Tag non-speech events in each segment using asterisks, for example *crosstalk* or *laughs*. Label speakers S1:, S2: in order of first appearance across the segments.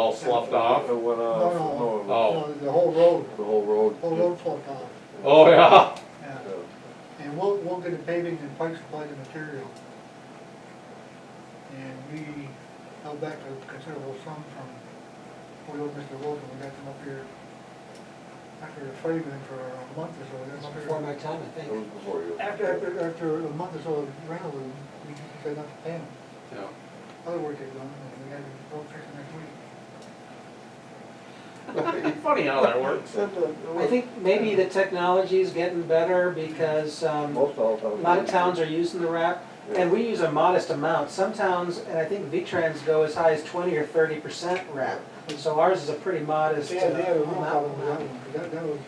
S1: all sloughed off?
S2: It went off, no, it was
S1: Oh.
S3: No, The whole road,
S2: uh, the whole road.
S3: whole road fork off,
S1: Oh, yeah,
S3: yeah.
S2: Yeah.
S3: And we'll, we'll get a paving and pipe supply the material. And we held back a considerable sum from, we owed Mr. Wilson, we got them up here after the fighting for a month or so. we got them up here.
S4: Before my time, I
S2: It was
S4: think.
S2: before you.
S3: After, after, after a month or so of rental, we we decided not to pay them.
S1: yeah.
S3: Other work they've done, and we had a road fix next week.
S1: Funny how that works.
S2: Except that it
S4: I
S2: was-
S4: think maybe the technology's getting better because, um,
S2: Most all
S4: A
S2: towns.
S4: lot of towns are using the wrap, and we use a modest amount. Some towns, and I think V-Trans go as high as twenty or thirty percent wrap. So ours is a pretty modest uh,
S3: They had, they had a real problem with that
S4: amount.
S3: one, 'cause that, that was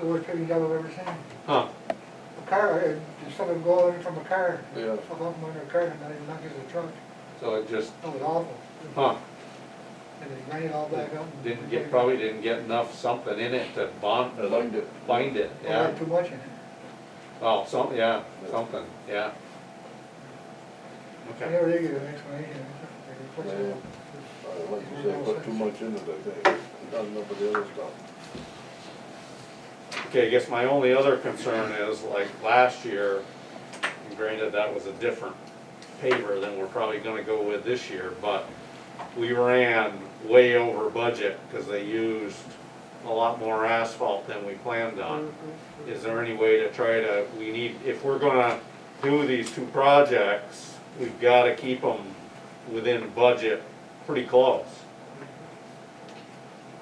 S3: the worst paving job I've ever seen.
S1: Huh,
S3: A car, uh, I had someone go out from a car,
S2: Yeah.
S3: fell off under a car, and not even knocked into a truck,
S1: so it just,
S3: that was awful.
S1: huh,
S3: And it ran it all back up. and-
S1: didn't get, probably didn't get enough something in it to bond,
S2: Bind it.
S1: bind it,
S3: Well,
S1: yeah.
S3: had Too much in it.
S1: Oh, some, yeah, something, yeah.
S3: I
S1: Okay.
S3: never did get an explanation. They replaced it.
S2: Uh, Like you say, put too much into it, I think, not enough of the other stuff.
S1: Okay, I guess my only other concern is like last year, and granted, that was a different paver than we're probably gonna go with this year, but we ran way over budget because they used a lot more asphalt than we planned on. Is there any way to try to, we need, if we're gonna do these two projects, we've gotta keep them within budget pretty close.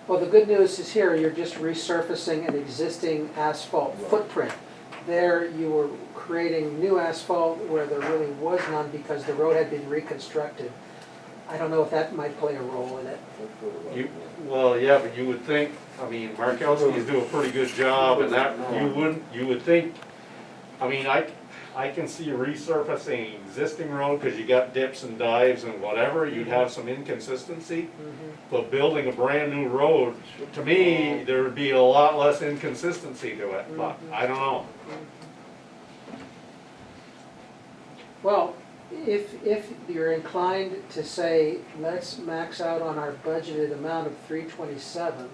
S4: Well, the good news is here, you're just resurfacing an existing asphalt
S2: Right.
S4: footprint. There, you were creating new asphalt where there really was none because the road had been reconstructed. I don't know if that might play a role in it.
S2: That's what it was.
S1: You, well, yeah, but you would think, I mean, Markowski's do a pretty good job and that, you wouldn't, you would think, I mean, I, I can see resurfacing existing road, cause you got dips and dives and whatever, you'd have some inconsistency. But building a brand new road, to me, there would be a lot less inconsistency to it, but I don't know.
S4: Well, if, if you're inclined to say, let's max out on our budgeted amount of three twenty-seven,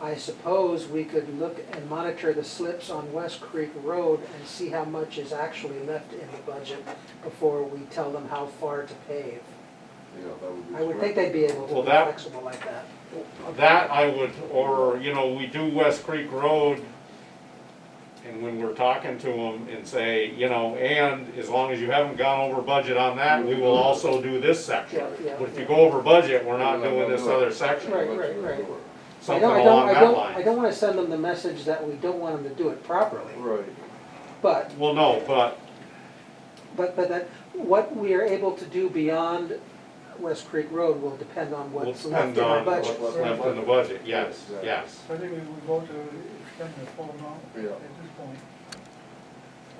S4: I suppose we could look and monitor the slips on West Creek Road and see how much is actually left in the budget before we tell them how far to pave.
S2: Yeah, that would be.
S4: I would
S2: smart.
S4: think they'd be able to
S1: Well,
S4: be
S1: that-
S4: flexible like that.
S1: That I would, or, you know, we do West Creek Road, and when we're talking to them and say, you know, and as long as you haven't gone over budget on that, we will also do this section.
S4: Yeah, yeah.
S1: But if you go over budget, we're not doing this other section,
S4: Right, right, right. I
S1: something
S4: don't, I don't,
S1: along
S4: I
S1: that
S4: don't, I
S1: line.
S4: don't wanna send them the message that we don't want them to do it properly,
S2: Right.
S4: but
S1: Well, no, but,
S4: But, but that, what we are able to do beyond West Creek Road will depend on
S1: will
S4: what's left
S1: depend
S4: in our
S1: on what's
S4: budget.
S1: left in the budget, yes,
S2: Yes, yeah.
S1: yes.
S3: So I think we would go to extend the full amount at
S2: Yeah.
S3: this point.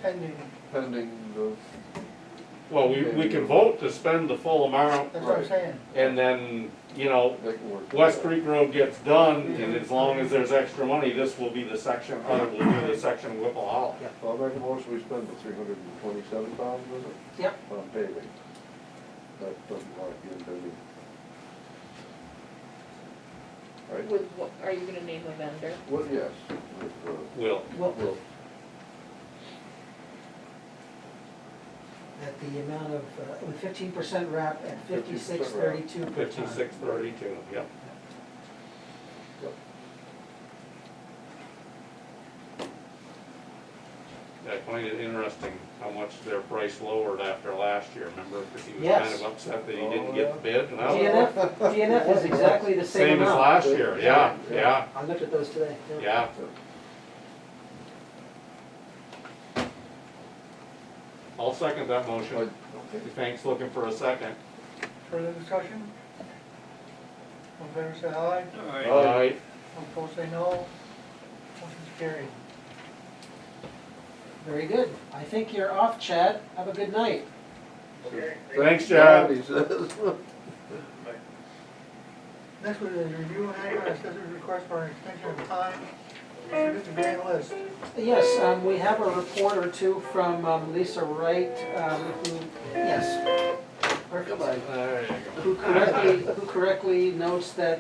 S3: Pending,
S2: Pending the,
S1: Well, we, we can vote to spend the full amount,
S3: that's what I'm
S2: Right.
S3: saying.
S1: and then, you know,
S2: they can work.
S1: West Creek Road gets done, and as long as there's extra money, this will be the section, or will be the section Whipple Hollow.
S2: I'll make a motion, we spend the three hundred and twenty-seven thousand, is it,
S4: Yep,
S2: on paving. That doesn't want to get into any. Right,
S5: With what, are you gonna name a vendor?
S2: well, yes, with, uh,
S1: Will,
S4: well,
S2: well,
S4: at the amount of, uh, with fifteen percent wrap at
S2: 56
S4: fifty-six thirty-two per ton.
S1: fifty-six
S4: *laughs*
S1: thirty-two, yep.
S2: Yep.
S1: I find it interesting how much their price lowered after last year, remember, because he was kind
S4: Yes.
S1: of upset that he didn't get the bid, and I was,
S4: DNF, DNF is exactly the same
S1: same as
S4: amount.
S1: last year, yeah, yeah,
S4: I looked at those today.
S1: yeah. I'll second that motion,
S2: I- okay.
S1: Thanks. looking for a second.
S3: Further discussion? All in favor, say aye.
S2: Aye.
S3: All opposed, say no. Motion's carried.
S4: Very good. I think you're off, Chad. Have a good night.
S1: Thanks, Chad.
S2: He says.
S3: Next one is review and act on assessor's request for an extension of time. Submit the grand list.
S4: Yes, um, we have a report or two from um, Lisa Wright, um, who, yes. Perfect.
S1: There you go.
S4: Who correctly, who correctly notes that